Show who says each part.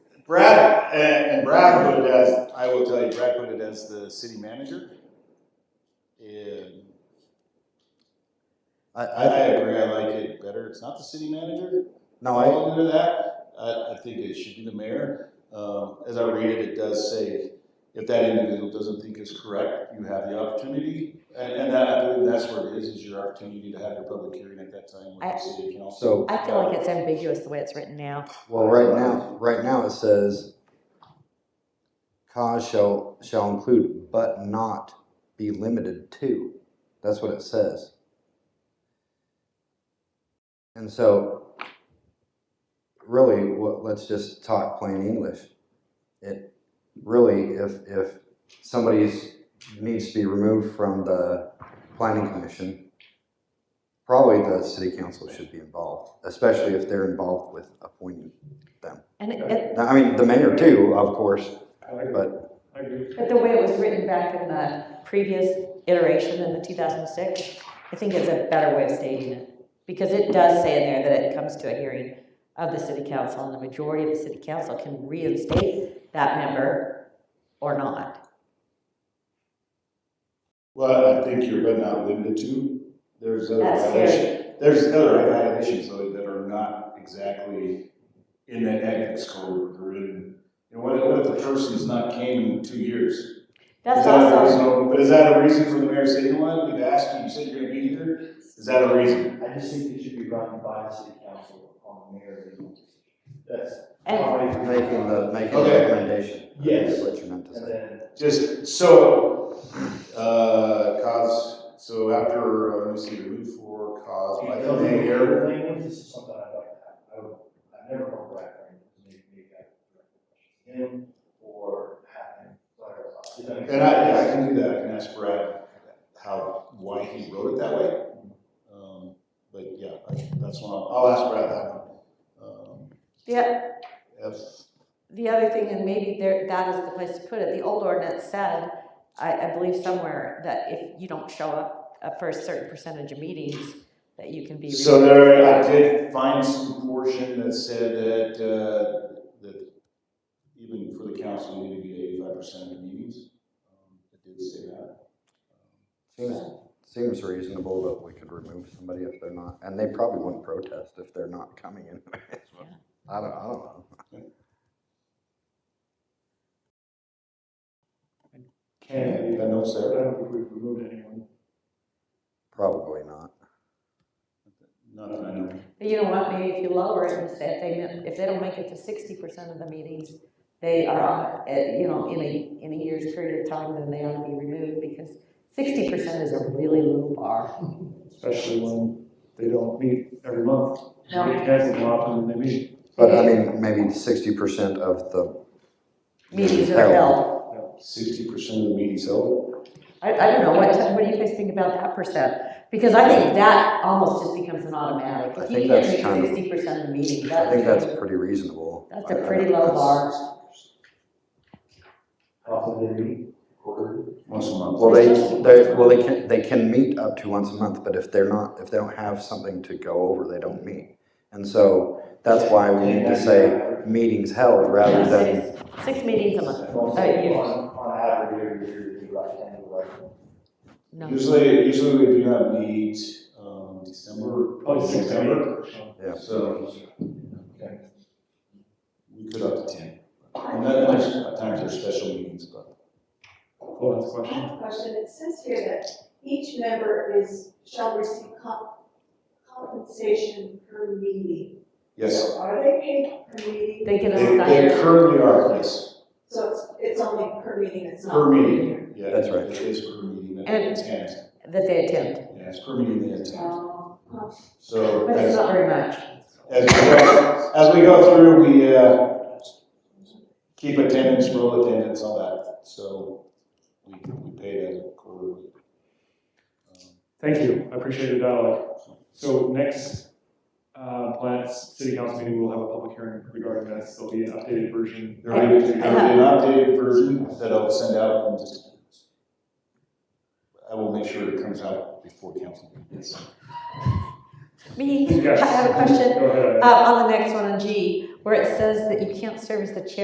Speaker 1: And Brad put it as, I will tell you, Brad put it as the city manager. And
Speaker 2: I,
Speaker 1: I,
Speaker 2: I,
Speaker 1: I agree, I like it better. It's not the city manager.
Speaker 2: no,
Speaker 1: I
Speaker 2: I,
Speaker 1: fall under that. I, I think it should be the mayor. Um, as I read it, it does say, if that individual doesn't think is correct, you have the opportunity. And, and that, I believe that's where it is, is your opportunity to have your public hearing at that time with
Speaker 3: I-
Speaker 1: the city council.
Speaker 2: so,
Speaker 3: I feel like it's ambiguous the way it's written now.
Speaker 2: well, right now, right now it says cause shall, shall include but not be limited to. That's what it says. And so, really, what, let's just talk plain English. It, really, if, if somebody's, needs to be removed from the planning commission, Probably the city council should be involved, especially if they're involved with appointing.
Speaker 3: And it- it,
Speaker 2: I mean, the mayor too, of course, but
Speaker 3: but the way it was written back in the previous iteration in the two thousand six, I think is a better way of stating it. Because it does say in there that it comes to a hearing of the city council and the majority of the city council can reinstate that member or not.
Speaker 1: Well, I think you're, but not limited to, there's other
Speaker 3: That's
Speaker 1: violations. There's other violations though that are not exactly in that ethics code or in, and what, what if the person's not came in two years? Is
Speaker 3: That's
Speaker 1: that a
Speaker 3: also,
Speaker 1: reason- But is that a reason for the mayor saying, well, we've asked you, you said you're gonna be here? Is that a reason?
Speaker 4: I just think it should be run by the city council on mayor. That's
Speaker 3: and
Speaker 4: probably.
Speaker 2: making the, making the
Speaker 1: Okay.
Speaker 2: recommendation. I think
Speaker 4: Yes.
Speaker 2: is What you meant to
Speaker 4: And
Speaker 2: say.
Speaker 4: then,
Speaker 1: Just, so, uh, cause, so after, uh, let me see, remove for cause by the mayor.
Speaker 4: Language, this is something I'd like to have, I would, I've never heard Brad Franklin, maybe, maybe I could direct the question to him or have him clarify.
Speaker 1: And I, yeah, I can do that, I can ask Brad how, why he wrote it that way. Um, But yeah, I- that's one, I'll I'll ask Brad that one. Um,
Speaker 3: the,
Speaker 1: F,
Speaker 3: The other thing, and maybe there, that is the place to put it, the old ordinance said, I, I believe somewhere, that if you don't show up uh, for a certain percentage of meetings, that you can be. re-
Speaker 1: so there, I did find some portion that said that, uh, that even for the council, you need to be eighty-five percent of the meetings. Um, It did say that.
Speaker 2: Seems, seems reasonable that we could remove somebody if they're not, and they probably wouldn't protest if they're not coming in. I don't, I don't know.
Speaker 1: Can, I know,
Speaker 4: I
Speaker 1: Sarah,
Speaker 4: don't think we've removed anyone.
Speaker 2: Probably not.
Speaker 1: not that I know.
Speaker 3: But you know what, maybe if you lower it and say, if they, don't- if they don't make it to sixty percent of the meetings, they are, on, uh, you know, in a, in a year's period of time, then they ought to be removed, because sixty percent is a really low bar.
Speaker 4: Especially when they don't meet every month.
Speaker 3: No.
Speaker 4: It depends on how often they meet.
Speaker 2: But I mean, maybe sixty percent of the.
Speaker 3: Meetings are held,
Speaker 1: Sixty percent of the meetings held.
Speaker 3: I, I don't know, what, what do you guys think about that percent? Because I think that almost just becomes an automatic.
Speaker 2: I
Speaker 3: If
Speaker 2: think
Speaker 3: you
Speaker 2: that's
Speaker 3: can't
Speaker 2: kind
Speaker 3: make
Speaker 2: of-
Speaker 3: sixty percent of the meetings,
Speaker 2: I
Speaker 3: that's.
Speaker 2: think that's pretty reasonable. Uh,
Speaker 3: That's a
Speaker 2: I- I
Speaker 3: pretty
Speaker 2: think
Speaker 3: low
Speaker 2: that's-
Speaker 3: bar.
Speaker 4: How Often they meet.
Speaker 1: Once a month.
Speaker 2: Well, they,
Speaker 3: They're supposed to meet
Speaker 2: they,
Speaker 3: once a
Speaker 2: well, they
Speaker 3: month.
Speaker 2: can, they can meet up to once a month, but if they're not, if they don't have something to go over, they don't meet. And so that's why we need to say meetings held rather than,
Speaker 3: Six- Six meetings a month,
Speaker 4: On,
Speaker 3: Uh, you-
Speaker 4: on average, you're, you're, you're like ten to eleven.
Speaker 3: no.
Speaker 1: Usually, usually we do not meet, um, December,
Speaker 4: Oh,
Speaker 1: probably
Speaker 4: six,
Speaker 1: September,
Speaker 4: seven.
Speaker 2: Yeah.
Speaker 1: so. We could up to ten. And then there's, at times there's special meetings, but.
Speaker 4: Oh, that's a
Speaker 5: I
Speaker 4: question.
Speaker 5: have a question. It says here that each member is, shall receive comp- compensation per meeting.
Speaker 1: Yes,
Speaker 5: So Are they paid per meeting?
Speaker 3: They get
Speaker 1: they,
Speaker 3: a
Speaker 1: they
Speaker 3: stipend,
Speaker 1: currently are, yes,
Speaker 5: So it's, it's only per meeting, it's not.
Speaker 1: per meeting, yeah.
Speaker 2: That's right.
Speaker 1: It is per meeting, that
Speaker 3: And-
Speaker 1: they attend,
Speaker 3: that they attend,
Speaker 1: yeah, it's per meeting they attend,
Speaker 5: Um,
Speaker 1: so.
Speaker 3: but it's
Speaker 1: as-
Speaker 3: not very much.
Speaker 1: As we go, as we go through, we, uh, keep attendance, roll attendance, all that, so we, we pay that quarterly. Um,
Speaker 6: Thank you, I appreciate the dialogue. So next, uh, Planet's city council meeting, we'll have a public hearing regarding this, there'll be an updated version.
Speaker 1: There will be, there will be an updated version that I'll send out and just. I will make sure it comes out before council. meeting.
Speaker 3: Me, I
Speaker 6: Yes.
Speaker 3: have a question,
Speaker 6: Go ahead.
Speaker 3: uh, on the next one, on G, where it says that you can't serve as the chair